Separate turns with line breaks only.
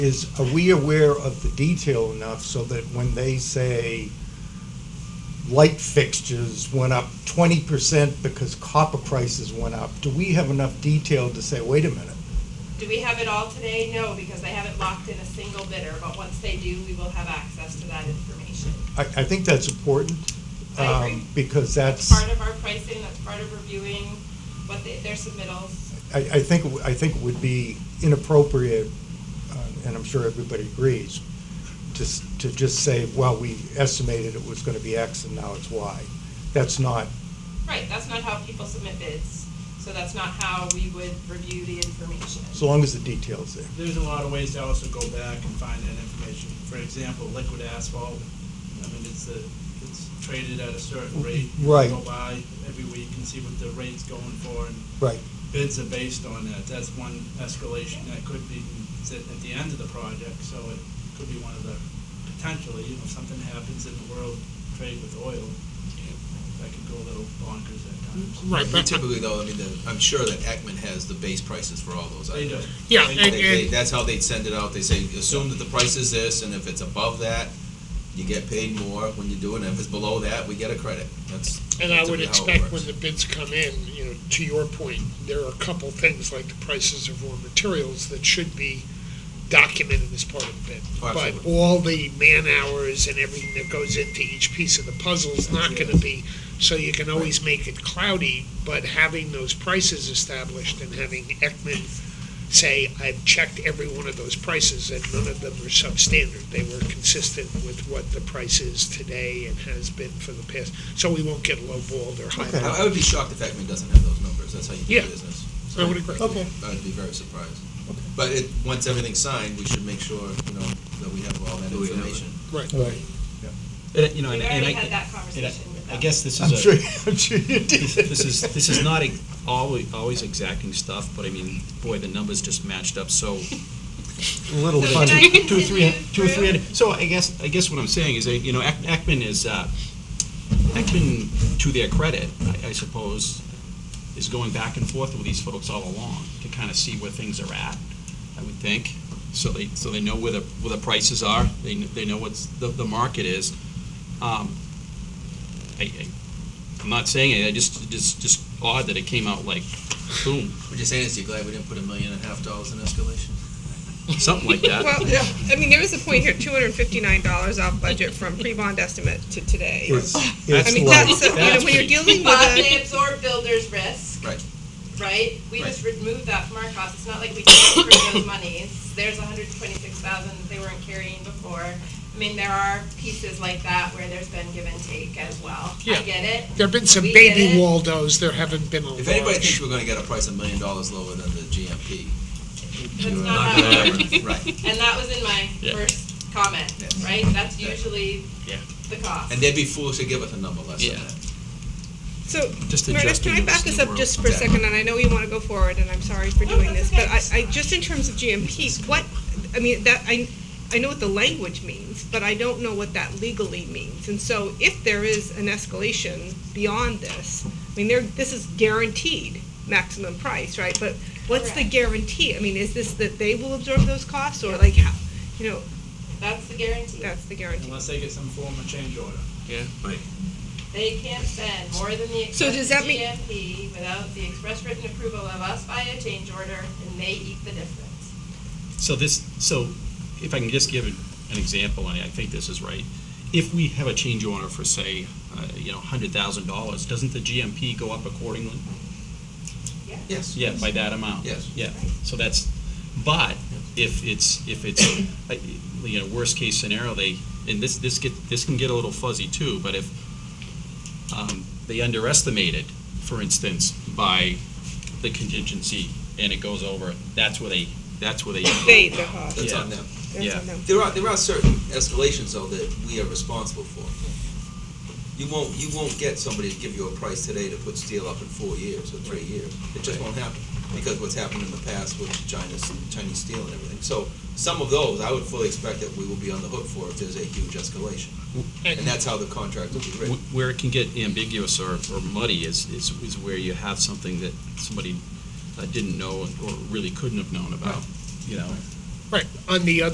Is, are we aware of the detail enough so that when they say light fixtures went up twenty percent because copper prices went up, do we have enough detail to say, wait a minute?
Do we have it all today? No, because they haven't locked in a single bidder, but once they do, we will have access to that information.
I, I think that's important.
I agree.
um, Because
That's
that's,
part of our pricing, that's part of reviewing what they, their submittals.
I, I think, it w- I think it would be inappropriate, uh, and I'm sure everybody agrees, to, s- to just say, well, we estimated it was gonna be X and now it's Y. That's not
Right, that's not how people submit bids, so that's not how we would review the information.
So long as the detail's there.
There's a lot of ways to also go back and find that information. For example, liquid asphalt, I mean, it's a, it's traded at a certain rate. You
Right.
Go by every week and see what the rate's going for, and
Right.
bids are based on that. That's one escalation that could be sit at the end of the project, so it could be one of the, potentially, you know, if something happens in the world, trade with oil, that could go a little bonkers at times.
Right, but,
Typically, though, I mean, the- I'm sure that Ekman has the base prices for all those.
They do.
items.
yeah,
They-
and,
they-
and,
That's how they send it out. They say, assume that the price is this, and if it's above that, you get paid more when you do it, and if it's below that, we get a credit. That's.
and I would
typically how it
expect
works.
when the bids come in, you know, to your point, there are a couple things like the prices of raw materials that should be documented as part of the bid.
Oh,
But
absolutely.
all the man hours and everything that goes into each piece of the puzzle is not gonna be, so you can always make it cloudy, but having those prices established and having Ekman say, I've checked every one of those prices and none of them were substandard. They were consistent with what the price is today and has been for the past, so we won't get lowballed or
I
high.
I would be shocked if Ekman doesn't have those numbers. That's how you
Yeah.
do business.
I would agree.
Okay.
I'd be very surprised. But it, once everything's signed, we should make sure, you know, that we have all that
we have it?
information.
Right.
Right.
And, you know,
We've
and, and
already
I,
had that
and I,
conversation with
I
them.
guess this
I'm
is
sure,
a,
I'm sure you did.
this is, this is not a, always, always exacting stuff, but I mean, boy, the numbers just matched up so
A little
So can
funny.
I
Two, two, three,
continue
two, three
through?
hundred. So I guess, I guess what I'm saying is, that, you know, Ek- Ekman is, uh, Ekman, to their credit, I, I suppose, is going back and forth with these folks all along to kind of see where things are at, I would think. So they, so they know where the, where the prices are, they, kn- they know what's, the, the market is. Um, I, I, I'm not saying it, I just, just, just odd that it came out like, boom,
We're just saying, is you glad we didn't put a million and a half dollars in escalation?
something like that.
Well, I mean, there is a point here, two hundred and fifty-nine dollars off budget from pre-bond estimate to today.
It's,
I
it's
mean,
like,
that's, a- you know, when you're dealing
But
with
they absorb builder's risk.
Right.
Right? We
Right.
just removed that from our costs. It's not like we transferred those monies. There's hundred twenty-six thousand that they weren't carrying before. I mean, there are pieces like that where there's been give and take as well.
Yeah.
I get it.
There've been some
We get
baby
it.
Waldos, there haven't been a
If anybody
large.
thinks we're gonna get a price a million dollars lower than the GMP.
That's
you're
not how it
gonna-
works.
Right.
And that was in my
Yeah.
first comment,
Yes.
right? That's usually
Yeah.
the cost.
And they'd be foolish to give us a number less than
Yeah.
that.
a, so,
Just
Meredith, can
adjusting
I
to this
back this
new
up
world.
just for a second, and I know you wanna go forward, and I'm sorry for
No,
doing
Oh, that's
this, but
okay.
I, I, just in terms of GMP, what, I mean, that, I, I know what the language means, but I don't know what that legally means, and so if there is an escalation beyond this, I mean, there, this is guaranteed maximum price, right, but what's the
Correct.
guarantee? I mean, is this that they will absorb those costs, or like, how, you know,
That's the guarantee.
that's the guarantee?
Unless they get some form of change order.
They can't spend more than the
So
express
does that mean-
GMP without the express written approval of us by a change order, and they eat the difference.
So this, so if I can just give an example, and I think this is right. If we have a change order for, say, uh, you know, hundred thousand dollars, doesn't the GMP go up accordingly?
Yeah.
Yes.
Yeah, by that amount.
Yes.
Yeah, so that's, but if it's, if it's, uh, you know, worst case scenario, they, and this, this get, this can get a little fuzzy too, but if um, they underestimated, for instance, by the contingency, and it goes over, that's where they, that's where they.
They, the cost.
That's on
Yeah.
them.
That's
Yeah.
on them.
There are, there are certain escalations though that we are responsible for. You won't, you won't get somebody to give you a price today to put steel up in four years or three years. It just won't happen because what's happened in the past with China's, Chinese steel and everything. So some of those, I would fully expect that we will be on the hook for if there's a huge escalation. And that's how the contract will be written.
Wh- Where it can get ambiguous or, or muddy is, is, is where you have something that somebody uh, didn't know or really couldn't have known about, you know?
Right, on the other